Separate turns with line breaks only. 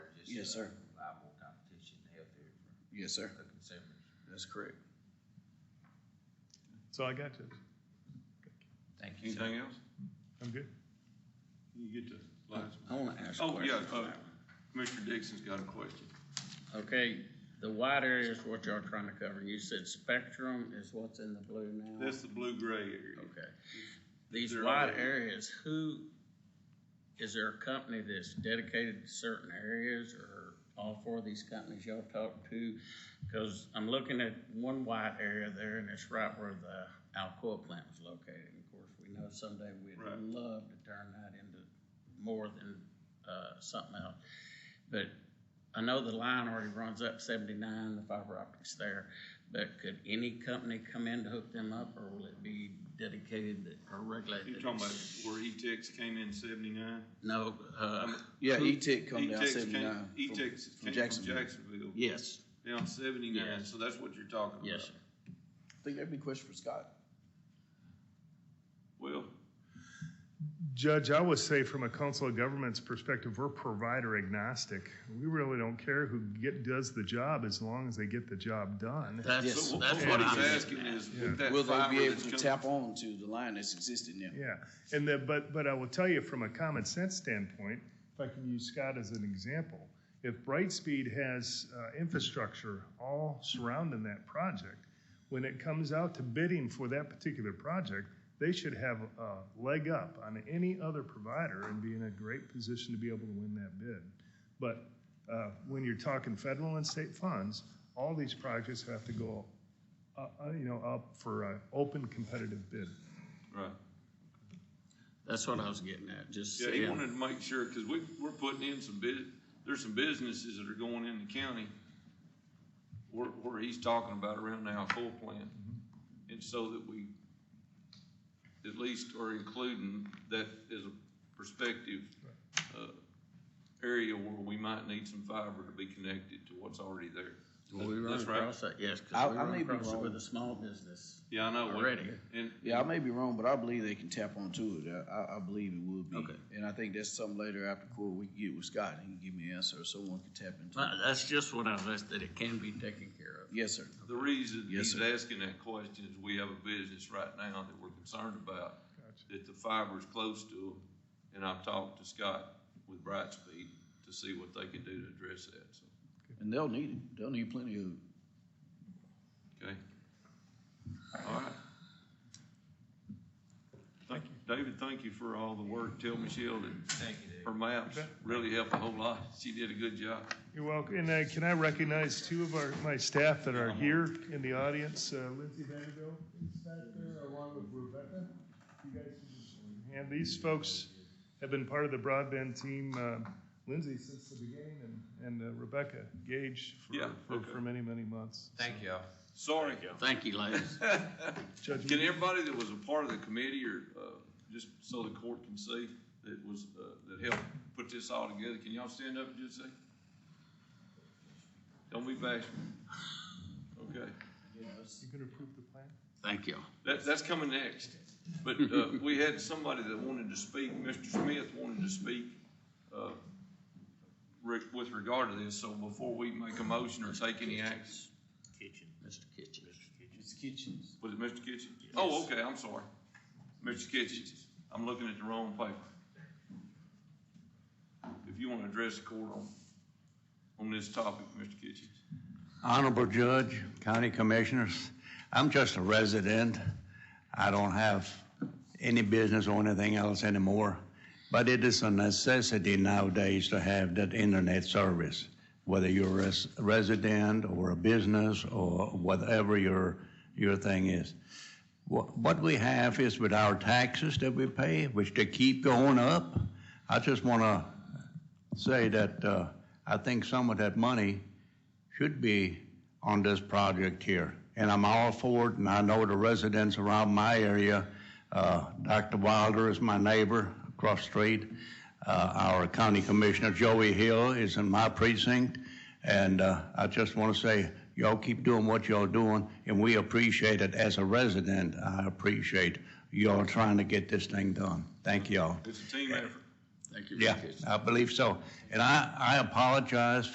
Yes,
uh,
sir.
Reliable competition, healthier
Yes, sir.
for the consumers.
That's correct.
So I got you.
Thank you, sir.
Anything else?
I'm good.
You get to last.
I want to ask a
Oh, yeah,
question.
uh, Commissioner Dixon's got a question.
Okay, the white area is what y'all trying to cover. You said spectrum is what's in the blue now?
That's the blue-gray area.
Okay. These
They're
white
all-
areas, who, is there a company that's dedicated to certain areas or all four of these companies y'all talked to? Cause I'm looking at one white area there and it's right where the Alcoa plant was located. And Of course, we know someday we'd
Right.
love to turn that into more than, uh, something else. But I know the line already runs up seventy-nine, the fiber optics there, but could any company come in to hook them up, or will it be dedicated that- or regulated?
You talking about Um, where E-Tex came in seventy-nine?
No, uh,
Yeah, E-Tech come down
E-Tex came,
seventy-nine. from-
E-Tex
from
came from
Jacksonville.
Jacksonville,
yes,
down seventy-nine,
Yes.
so that's what you're talking about.
yes, sir.
I think that'd be a question for Scott.
Well,
Judge, I would say from a council of governments perspective, we're provider agnostic. We really don't care who get, does the job as long as they get the job done.
That's,
so
that's
what-
what
what
I'm
he's
asking.
asking is,
Yeah.
with that
Will they be
fiber
able
that's
to
coming-
tap on to the line that's existing now?
Yeah, and the, but, but I will tell you from a common sense standpoint, if I can use Scott as an example, if Brightspeed has uh, infrastructure all surrounding that project, when it comes out to bidding for that particular project, they should have a leg up on any other provider and be in a great position to be able to win that bid. But uh, when you're talking federal and state funds, all these projects have to go, uh, uh, you know, up for an open competitive bid.
Right.
That's what I was getting at, just
Yeah, he
saying,
wanted to make sure, because we, we're putting in some bus, there's some businesses that are going in the county where, where he's talking about around now, full plant. And so that we at least are including that as a perspective, uh, area where we might need some fiber to be connected to what's already there.
Well, we run
That's right.
across that, yes,
I-
cause we
I
run
may be
across it
wrong.
with a small business.
Yeah, I know. we-
Already.
And,
Yeah, I may be wrong, but I believe they can tap onto it. I- I, I believe it would be.
Okay.
And I think that's something later after court we can get with Scott. He can give me an answer or someone can tap into it.
Uh, That's just what I was, asking, that it can be taken care of.
Yes, sir.
The reason
Yes,
he's
sir.
asking that question is we have a business right now that we're concerned about,
Gotcha.
that the fiber's close to them. And I've talked to Scott with Brightspeed to see what they can do to address that, so,
And they'll need it. They'll need plenty of it.
okay? All right. Thank you. David, thank you for all the work. Tell Michelle that
Thank you, Dave.
her maps really helped a whole lot. She did a good job.
You're welcome. And uh, can I recognize two of our, my staff that are here in the audience? Uh, Lindsay Vanderbilt is back there along with Rebecca. You guys can just show your hand. these folks have been part of the broadband team, uh, Lindsay since the beginning and, and uh, Rebecca Gage for,
Yeah,
for,
okay.
for many, many months.
Thank y'all.
Sorry.
Thank you, ladies.
Judge,
Can everybody that was a part of the committee or, uh, just so the court can see that was, uh, that helped put this all together, can y'all stand up and just say? Don't be bashful. Okay,
you can approve the plan?
Thank you.
that, that's coming next. But, uh, we had somebody that wanted to speak, Mr. Smith wanted to speak, uh, re- with regard to this, so before we make a motion or take any action,
Kitchen. Mr. Kitchen.
It's kitchens.
was it Mr. Kitchen? Oh, okay, I'm sorry. Mr. Kitchens, I'm looking at the wrong paper. If you want to address the court on, on this topic, Mr. Kitchens.
Honorable Judge, County Commissioners, I'm just a resident. I don't have any business or anything else anymore, but it is a necessity nowadays to have that internet service, whether you're a res- resident or a business or whatever your, your thing is. What what we have is with our taxes that we pay, which they keep going up, I just want to say that uh, I think some of that money should be on this project here. And I'm all for it, and I know the residents around my area, uh, Dr. Wilder is my neighbor across the street. Uh, Our county commissioner, Joey Hill, is in my precinct. And uh, I just want to say, y'all keep doing what y'all doing, and we appreciate it. As a resident, I appreciate y'all trying to get this thing done. Thank y'all.
It's a team effort.
Thank you. for your
Yeah,
attention.
I believe so. And I, I apologize